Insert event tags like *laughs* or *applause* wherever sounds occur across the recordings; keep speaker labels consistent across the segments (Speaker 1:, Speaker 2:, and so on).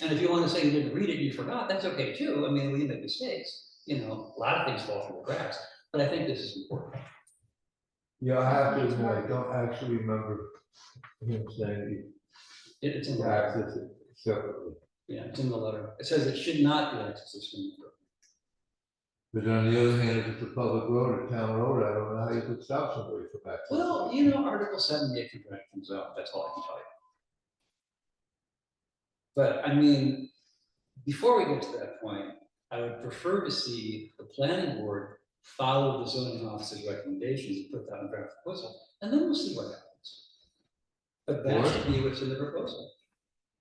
Speaker 1: And if you wanna say you didn't read it, you forgot, that's okay too, I mean, we make mistakes, you know, a lot of things fall through the cracks, but I think this is important.
Speaker 2: Yeah, I have to admit, I don't actually remember him saying
Speaker 1: It- It's in
Speaker 2: he
Speaker 1: the, letter.
Speaker 2: accessed it separately.
Speaker 1: yeah, it's in the letter, it says it should not be accessed as soon as-
Speaker 2: But on the other hand, if it's a public road or town road, I don't know how you could stop somebody from accessing.
Speaker 1: Well,
Speaker 2: it.
Speaker 1: you know, Article seven, if the contract comes up, that's all I can tell you. But I mean, before we get to that point, I would prefer to see the planning board follow the zoning officer's recommendations and put that in draft proposal, and then we'll see what happens. But that should be what's in the proposal.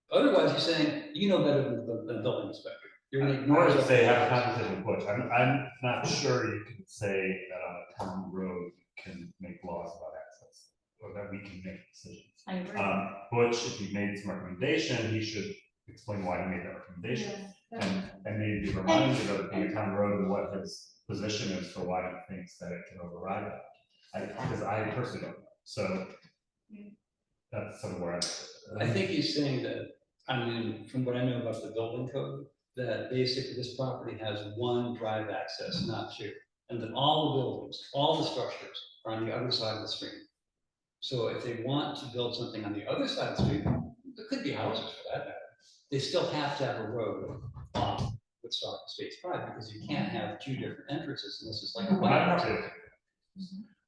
Speaker 1: Otherwise, you're saying, you know better than the, than the building inspector. You're gonna
Speaker 3: I
Speaker 1: ignore
Speaker 3: would
Speaker 1: it.
Speaker 3: say have a conversation with Butch, I'm, I'm not sure you can say that on a town road can make laws about access, or that we can make decisions.
Speaker 4: I agree.
Speaker 3: Um, Butch, if he made some recommendation, he should explain why he made that recommendation,
Speaker 4: Yeah,
Speaker 3: and,
Speaker 4: that's-
Speaker 3: and maybe be reminded of being a town road and what his position is for why he thinks that it can override it. I, because I personally don't, know. so.
Speaker 4: Yeah.
Speaker 3: That's somewhere.
Speaker 1: I think he's saying that, I mean, from what I know about the building code, that basically this property has one drive access, not two. And that all the buildings, all the structures are on the other side of the street. So if they want to build something on the other side of the street, there could be houses for that matter. They still have to have a road off with Stock Space Drive because you can't have two different entrances and this is like. a
Speaker 3: Well,
Speaker 1: one
Speaker 3: I'm not sure.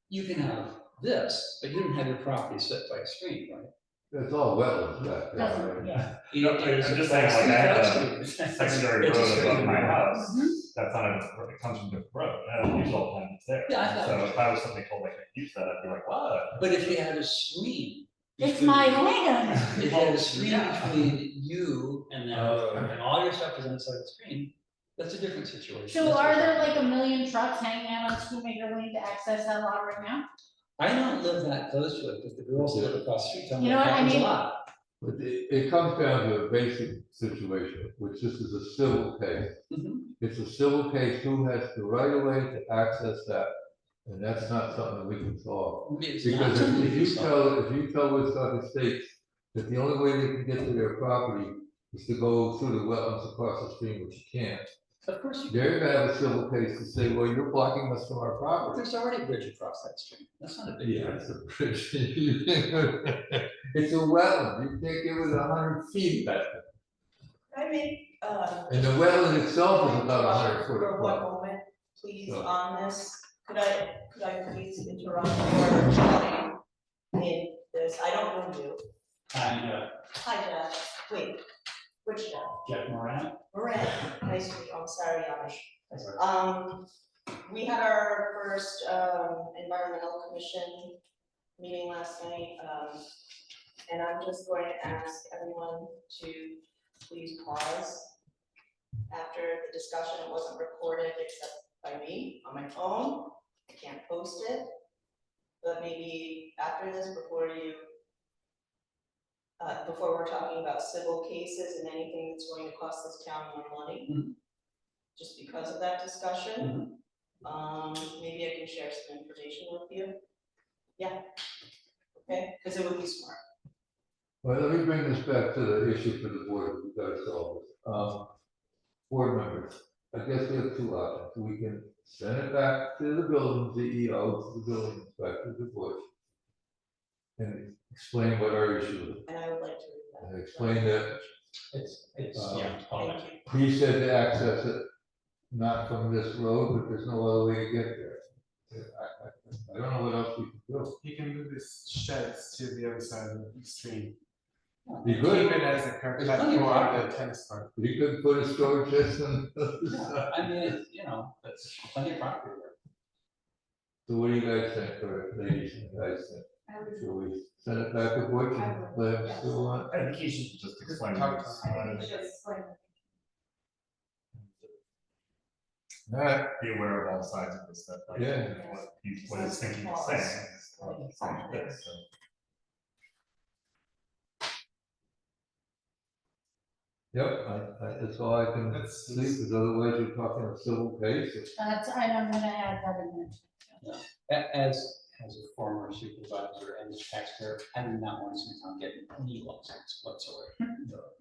Speaker 1: You can have this, but you don't have your property set by a street, right?
Speaker 2: That's all wetlands back there.
Speaker 4: That's-
Speaker 2: right?
Speaker 4: yeah.
Speaker 3: No, I- I'm just saying, like, I have a secondary
Speaker 1: It's a
Speaker 3: road
Speaker 1: straight
Speaker 3: above my
Speaker 1: road.
Speaker 3: house,
Speaker 1: Mm-hmm.
Speaker 3: that's on a, it comes from the road, and usually all the time it's there.
Speaker 1: Yeah, I thought-
Speaker 3: So if I was somebody told like, use that, I'd be like, wow.
Speaker 1: But if you had a screen.
Speaker 4: It's
Speaker 1: between-
Speaker 4: my land.
Speaker 1: If you had a screen between you and
Speaker 2: Oh.
Speaker 1: that, and all your stuff is inside the screen, that's a different situation.
Speaker 4: So
Speaker 1: That's
Speaker 4: are
Speaker 1: what-
Speaker 4: there like a million trucks hanging out on Two Maker Lane to access that lot right now?
Speaker 1: I don't live that close to it, but the girls who live across the street tell me
Speaker 4: You
Speaker 1: it
Speaker 4: know what I
Speaker 1: happens a
Speaker 4: mean?
Speaker 1: lot.
Speaker 2: But it, it comes down to a basic situation, which this is a civil case.
Speaker 1: Mhm.
Speaker 2: It's a civil case, who has the right of way to access that? And that's not something we can solve.
Speaker 1: It's not
Speaker 2: Because if-
Speaker 1: something
Speaker 2: if
Speaker 1: you
Speaker 2: you
Speaker 1: saw.
Speaker 2: tell, if you tell Woodstock Estates that the only way they can get to their property is to go through the wetlands across the stream, which you can't.
Speaker 1: Of course, you-
Speaker 2: They're gonna have a civil case to say, well, you're blocking us from our property.
Speaker 1: there's already a bridge across that stream, that's not a big
Speaker 2: Yeah,
Speaker 1: deal.
Speaker 2: it's a *laughs* bridge. It's a wetland, you can't give it a hundred feet back.
Speaker 5: I make, uh.
Speaker 2: And the wetland itself is about a hundred foot
Speaker 5: For one
Speaker 2: across.
Speaker 5: moment, please,
Speaker 2: So-
Speaker 5: on this, could I, could I please interrupt or join in this, I don't know you,
Speaker 1: And, uh,
Speaker 5: hi Jeff, wait, which Jeff?
Speaker 1: Jack Moran,
Speaker 5: Moran, nice to meet you, I'm sorry, Amish. Um, we had our first, um, environmental commission meeting last night, um, and I'm just going to ask everyone to please pause after the discussion, it wasn't recorded except by me on my phone, I can't post it. But maybe after this, before you, uh, before we're talking about civil cases and anything that's going to cost this town more money,
Speaker 1: Mhm.
Speaker 5: just because of that discussion,
Speaker 1: Mhm.
Speaker 5: um, maybe I can share some information with you. Yeah, okay, because it would be smart.
Speaker 2: Well, let me bring this back to the issue for the board, we gotta solve this. Um, board members, I guess we have two options. We can send it back to the building, CEO, to the building inspector, the board. And explain what our issue is,
Speaker 5: And I would like to read that.
Speaker 2: and explain that
Speaker 1: it's, it's,
Speaker 2: Uh,
Speaker 1: yeah, all that.
Speaker 5: Thank you.
Speaker 2: he said to access it, not from this road, but there's no other way to get there. I, I, I don't know what else we can do.
Speaker 6: He can move his sheds to the other side of the stream.
Speaker 2: Be
Speaker 6: Keep
Speaker 2: good,
Speaker 6: it as a curb
Speaker 1: There's
Speaker 6: cut
Speaker 1: plenty of
Speaker 6: for
Speaker 1: property.
Speaker 6: the tennis court.
Speaker 2: you could put a storage system. *laughs*
Speaker 1: Yeah, I mean, it's, you know, that's plenty of property there.
Speaker 2: So what do you guys think, or ladies and guys think?
Speaker 4: I would-
Speaker 2: Should we send it back to Butch and let him still on?
Speaker 3: I think he should just explain.
Speaker 6: Talk
Speaker 3: this.
Speaker 6: to
Speaker 4: I think it's like-
Speaker 2: Alright,
Speaker 3: Be aware of all sides of this stuff. like,
Speaker 2: Yeah.
Speaker 3: What he, what he's thinking of saying. Something like this, so.
Speaker 2: yep, I, I, that's all I can
Speaker 6: That's-
Speaker 2: see, because otherwise you're talking a civil case.
Speaker 4: That's, and I'm gonna add that in there.
Speaker 1: A- As, as a former supervisor and taxpayer, I do not want to see town get any lawsuits whatsoever.